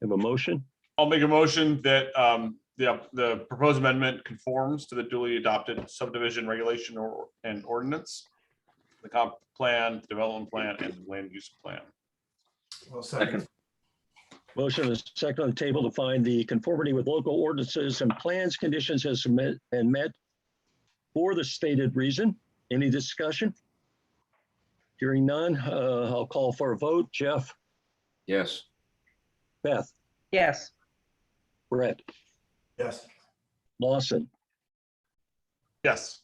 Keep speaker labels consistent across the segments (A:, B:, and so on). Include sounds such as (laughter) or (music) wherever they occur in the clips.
A: Have a motion?
B: I'll make a motion that um, the, the proposed amendment conforms to the duly adopted subdivision regulation or, and ordinance. The comp plan, development plan, and land use plan.
C: I'll second.
A: Motion is second on the table to find the conformity with local ordinances and plans, conditions has submit and met for the stated reason. Any discussion? Hearing none, uh, I'll call for a vote. Jeff,
D: Yes.
A: Beth,
E: yes,
A: Brett,
C: Yes.
A: Lawson,
B: Yes,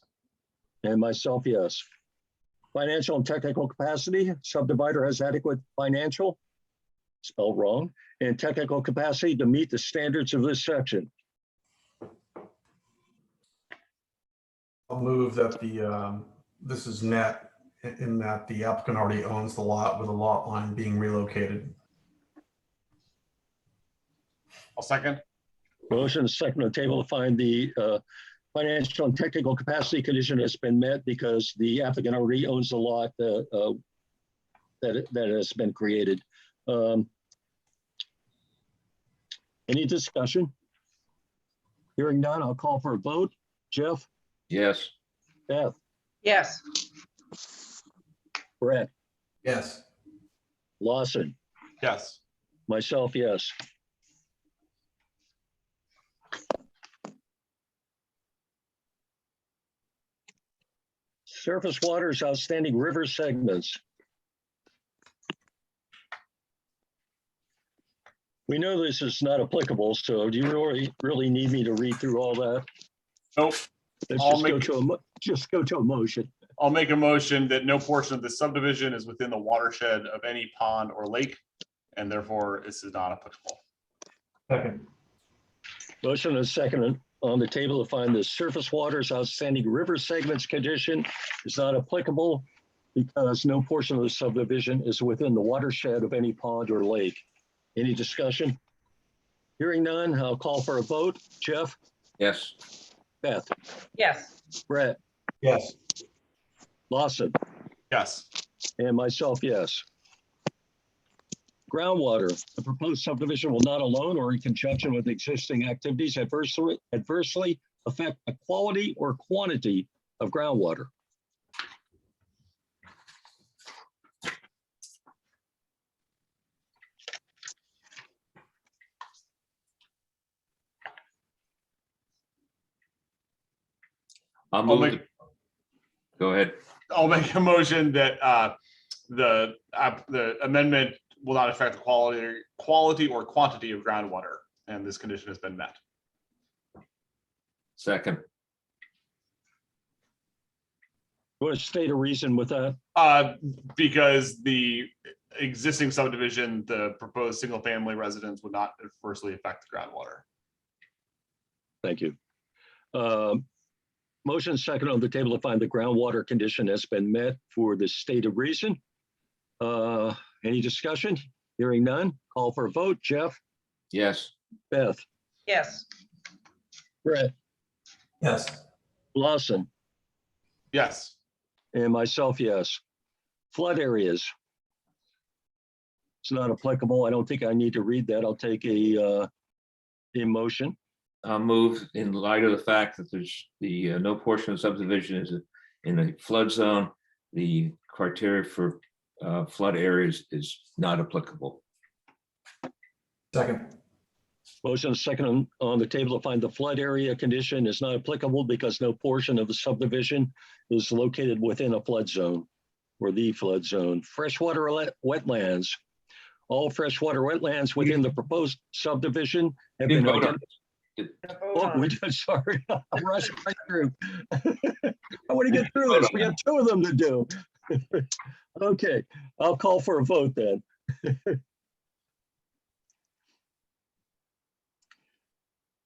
A: and myself, yes. Financial and technical capacity, subdivider has adequate financial, spelled wrong, and technical capacity to meet the standards of this section.
C: I'll move that the, um, this is net in- in that the applicant already owns the lot with a lot line being relocated.
B: I'll second.
A: Motion is second on the table to find the uh, financial and technical capacity condition has been met because the applicant already owns the lot uh, uh, that, that has been created. Um, Any discussion? Hearing none, I'll call for a vote. Jeff,
D: Yes.
A: Beth,
E: yes,
A: Brett,
C: Yes.
A: Lawson,
B: Yes,
A: myself, yes. Surface waters outstanding river segments. We know this is not applicable, so do you really, really need me to read through all that?
B: Nope.
A: Let's
B: I'll
A: just go
B: make-
A: to a, mo- just go to a motion.
B: I'll make a motion that no portion of the subdivision is within the watershed of any pond or lake, and therefore this is not applicable.
C: Second.
A: Motion and second on the table to find the surface waters outstanding river segments condition is not applicable because no portion of the subdivision is within the watershed of any pond or lake. Any discussion? Hearing none, I'll call for a vote. Jeff,
D: Yes.
A: Beth,
E: yes,
A: Brett,
C: Yes.
A: Lawson,
B: Yes,
A: and myself, yes. Groundwater, the proposed subdivision will not alone or in conjunction with existing activities adversely adversely affect the quality or quantity of groundwater.
D: I'll
B: I'll
D: move.
B: make,
D: the- Go ahead.
B: I'll make a motion that uh, the, uh, the amendment will not affect the quality, quality or quantity of groundwater, and this condition has been met.
D: Second.
A: Want to state a reason with that?
B: Uh, because the existing subdivision, the proposed single-family residence would not adversely affect the groundwater.
A: Thank you. Um, Motion second on the table to find the groundwater condition has been met for the state of reason. Uh, Any discussion? Hearing none. Call for a vote. Jeff,
D: Yes.
A: Beth,
E: yes,
A: Brett,
C: Yes.
A: Lawson,
B: Yes,
A: and myself, yes. Flood areas. It's not applicable. I don't think I need to read that. I'll take a, uh, a motion.
D: I'll move in light of the fact that there's the, uh, no portion of subdivision is in a flood zone. The criteria for uh, flood areas is not applicable.
C: Second.
A: Motion is second on, on the table to find the flood area condition is not applicable because no portion of the subdivision is located within a flood zone or the flood zone. Freshwater ele- wetlands. All freshwater wetlands within the proposed subdivision have been.
D: Didn't vote on
A: ident- Oh, we did, (laughs) sorry, I'm rushing right through. (laughs) I want to get through this. We got two of them to do. (laughs) Okay, I'll call for a vote then. (laughs)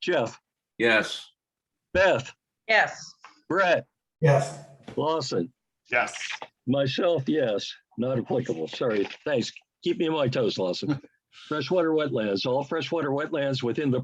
A: Jeff,
D: Yes.
A: Beth,
E: yes,
A: Brett,
C: Yes.
A: Lawson,
B: yes,
A: myself, yes, not applicable. Sorry, thanks. Keep me on my toes, Lawson. Freshwater wetlands, all freshwater wetlands within the